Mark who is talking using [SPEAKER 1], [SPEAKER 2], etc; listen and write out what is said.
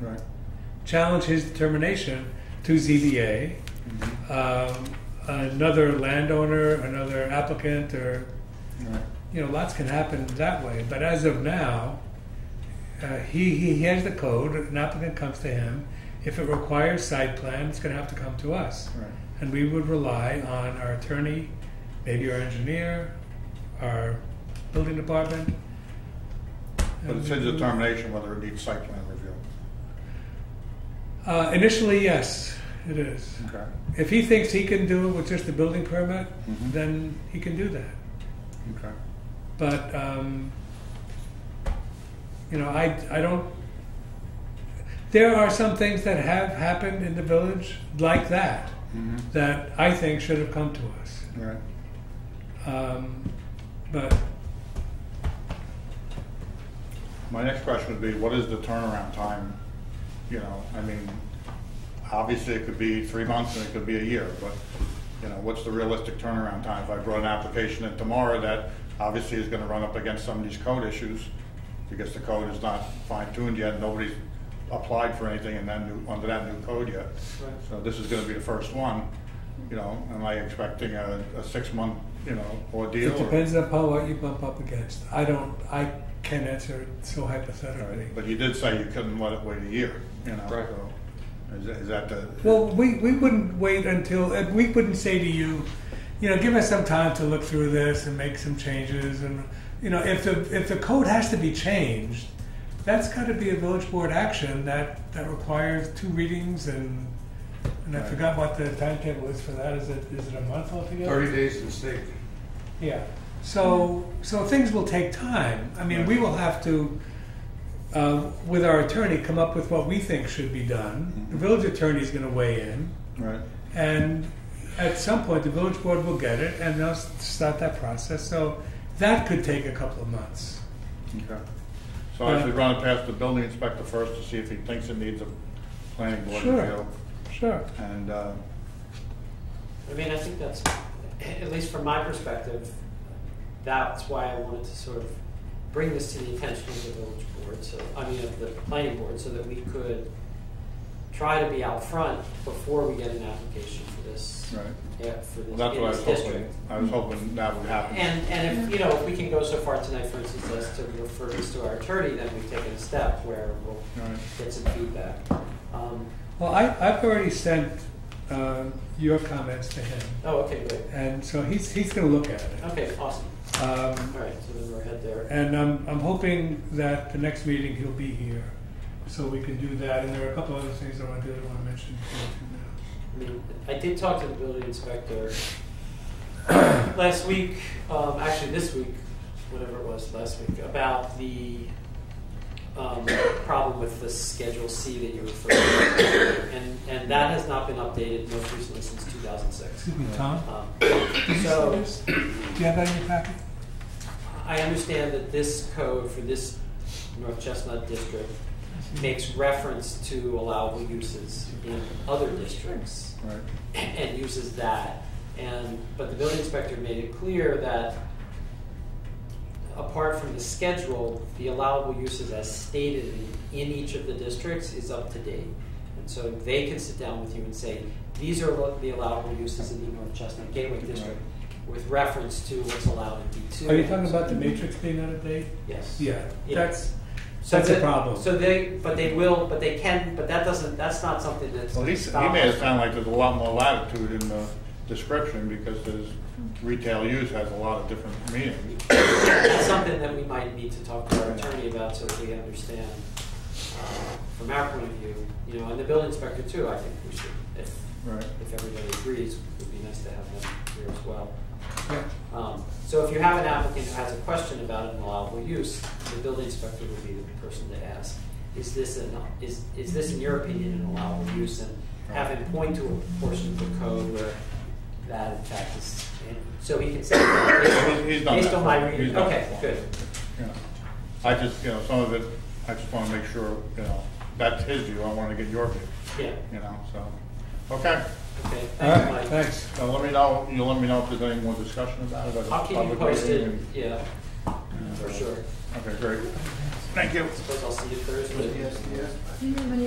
[SPEAKER 1] Right.
[SPEAKER 2] challenge his determination to ZBA.
[SPEAKER 1] Mm-hmm.
[SPEAKER 2] Um, another landowner, another applicant, or
[SPEAKER 1] Right.
[SPEAKER 2] you know, lots can happen that way. But as of now, uh, he, he he has the code. An applicant comes to him. If it requires site plan, it's going to have to come to us,
[SPEAKER 1] Right.
[SPEAKER 2] and we would rely on our attorney, maybe our engineer, our building department.
[SPEAKER 1] But it's a determination whether it needs site plan review.
[SPEAKER 2] Uh, initially, yes, it is.
[SPEAKER 1] Okay.
[SPEAKER 2] If he thinks he can do it with just a building permit,
[SPEAKER 1] Mhm.
[SPEAKER 2] then he can do that.
[SPEAKER 1] Okay.
[SPEAKER 2] But, um, you know, I, I don't, there are some things that have happened in the village like that,
[SPEAKER 1] Mhm.
[SPEAKER 2] that I think should have come to us.
[SPEAKER 1] Right.
[SPEAKER 2] Um, but,
[SPEAKER 1] My next question would be, what is the turnaround time? You know, I mean, obviously it could be three months and it could be a year, but, you know, what's the realistic turnaround time? If I brought an application in tomorrow, that obviously is gonna run up against some of these code issues because the code is not fine tuned yet, nobody's applied for anything in that new, under that new code yet. So this is gonna be the first one, you know, am I expecting a, a six-month, you know, ordeal?
[SPEAKER 2] it
[SPEAKER 1] or-
[SPEAKER 2] depends upon what you bump up against. I don't, I can't answer it so hypothetically.
[SPEAKER 1] But you did say you couldn't let it wait a year, you know,
[SPEAKER 3] Right.
[SPEAKER 1] so, is that- is that the?
[SPEAKER 2] Well, we, we wouldn't wait until, uh, we wouldn't say to you, you know, give us some time to look through this and make some changes and, you know, if the, if the code has to be changed, that's gotta be a village board action that, that requires two readings and, and I
[SPEAKER 1] Right.
[SPEAKER 2] forgot what the timetable is for that, is it, is it a month altogether?
[SPEAKER 3] Thirty days in state.
[SPEAKER 2] Yeah, so, so things will take time. I mean, we will have to, uh, with our attorney, come up with what we think should be done. The
[SPEAKER 1] Mhm.
[SPEAKER 2] village attorney's gonna weigh in.
[SPEAKER 1] Right,
[SPEAKER 2] And at some point, the village board will get it and they'll s- start that process. So that could take a couple of months.
[SPEAKER 1] okay. So I should run it past the building inspector first to see if he thinks it needs a planning board
[SPEAKER 2] Sure.
[SPEAKER 1] review.
[SPEAKER 2] Sure.
[SPEAKER 1] And, uh,
[SPEAKER 4] I mean, I think that's, at least from my perspective, that's why I wanted to sort of bring this to the attention of the village board, so, I mean, of the planning board, so that we could try to be out front before we get an application for this.
[SPEAKER 1] Right.
[SPEAKER 4] Yeah, for this,
[SPEAKER 1] well, that's
[SPEAKER 4] in
[SPEAKER 1] what I was
[SPEAKER 4] this
[SPEAKER 1] hoping,
[SPEAKER 4] district.
[SPEAKER 1] I was hoping that would happen.
[SPEAKER 4] And, and if, you know, if we can go so far tonight, for instance, as to refer this to our attorney, then we've taken a step where we'll
[SPEAKER 1] Right.
[SPEAKER 4] get some feedback. Um,
[SPEAKER 2] Well, I, I've already sent uh, your comments to him.
[SPEAKER 4] Oh, okay, great.
[SPEAKER 2] And so he's, he's going to look at it.
[SPEAKER 4] Okay, awesome. All
[SPEAKER 2] Um,
[SPEAKER 4] right, so then we're ahead there.
[SPEAKER 2] and I'm, I'm hoping that the next meeting he'll be here so we can do that. And there are a couple other things I want to do that I want to mention. to
[SPEAKER 4] I mean, I did talk to the building inspector last week, um, actually this week, whatever it was last week, about the um, problem with the Schedule C that you referred to. And, and that has not been updated most recently since 2006.
[SPEAKER 2] you now. Excuse me, Tom?
[SPEAKER 4] Um,
[SPEAKER 2] Did you see
[SPEAKER 4] so
[SPEAKER 2] this? Do you have that in your packet?
[SPEAKER 4] I understand that this code for this North Chestnut district makes reference to allowable uses in other districts.
[SPEAKER 1] Right,
[SPEAKER 4] and uses that. And, but the building inspector made it clear that apart from the schedule, the allowable uses as stated in, in each of the districts is up to date. And so they can sit down with you and say, these are what the allowable uses in the North Chestnut Gateway District with reference to what's allowed in B two.
[SPEAKER 2] Are you talking about the matrix being out of date?
[SPEAKER 4] Yes.
[SPEAKER 2] Yeah,
[SPEAKER 4] Yeah.
[SPEAKER 2] that's,
[SPEAKER 4] So
[SPEAKER 2] that's a
[SPEAKER 4] that-
[SPEAKER 2] problem.
[SPEAKER 4] So they, but they will, but they can, but that doesn't, that's not something that's.
[SPEAKER 1] well, he, s- he made it sound like there's a lot more latitude in the description because there's, retail use has a lot of different meanings.
[SPEAKER 4] It's something that we might need to talk to our attorney about so that we understand, uh, from our point of view, you know, and the building inspector too, I think we should, if,
[SPEAKER 1] Right.
[SPEAKER 4] if everybody agrees, it would be nice to have them here as well.
[SPEAKER 2] Yeah.
[SPEAKER 4] Um, So if you have an applicant who has a question about an allowable use, the building inspector would be the person to ask, is this an, is, is this in your opinion an allowable use? And have him point to a portion of the code where that in fact is, and so he can say,
[SPEAKER 1] He's
[SPEAKER 4] based
[SPEAKER 1] done
[SPEAKER 4] on- based
[SPEAKER 1] that
[SPEAKER 4] on my
[SPEAKER 1] before. He's
[SPEAKER 4] reading,
[SPEAKER 1] done that
[SPEAKER 4] okay,
[SPEAKER 1] before.
[SPEAKER 4] good.
[SPEAKER 1] Yeah. I just, you know, some of it, I just wanna make sure, you know, that's his view, I wanna get your view.
[SPEAKER 4] Yeah,
[SPEAKER 1] you know, so, okay.
[SPEAKER 2] All
[SPEAKER 4] okay,
[SPEAKER 2] right,
[SPEAKER 4] thanks, Mike.
[SPEAKER 2] thanks.
[SPEAKER 1] So let me know, you let me know if there's any more discussion about it. at the
[SPEAKER 4] I'll keep you
[SPEAKER 1] public meeting
[SPEAKER 4] posted,
[SPEAKER 1] and-
[SPEAKER 4] yeah,
[SPEAKER 1] and,
[SPEAKER 4] for
[SPEAKER 1] uh,
[SPEAKER 4] sure.
[SPEAKER 1] Okay, great. Thank you.
[SPEAKER 4] Suppose I'll see you Thursday.
[SPEAKER 3] Yes, yes.
[SPEAKER 5] Do you have any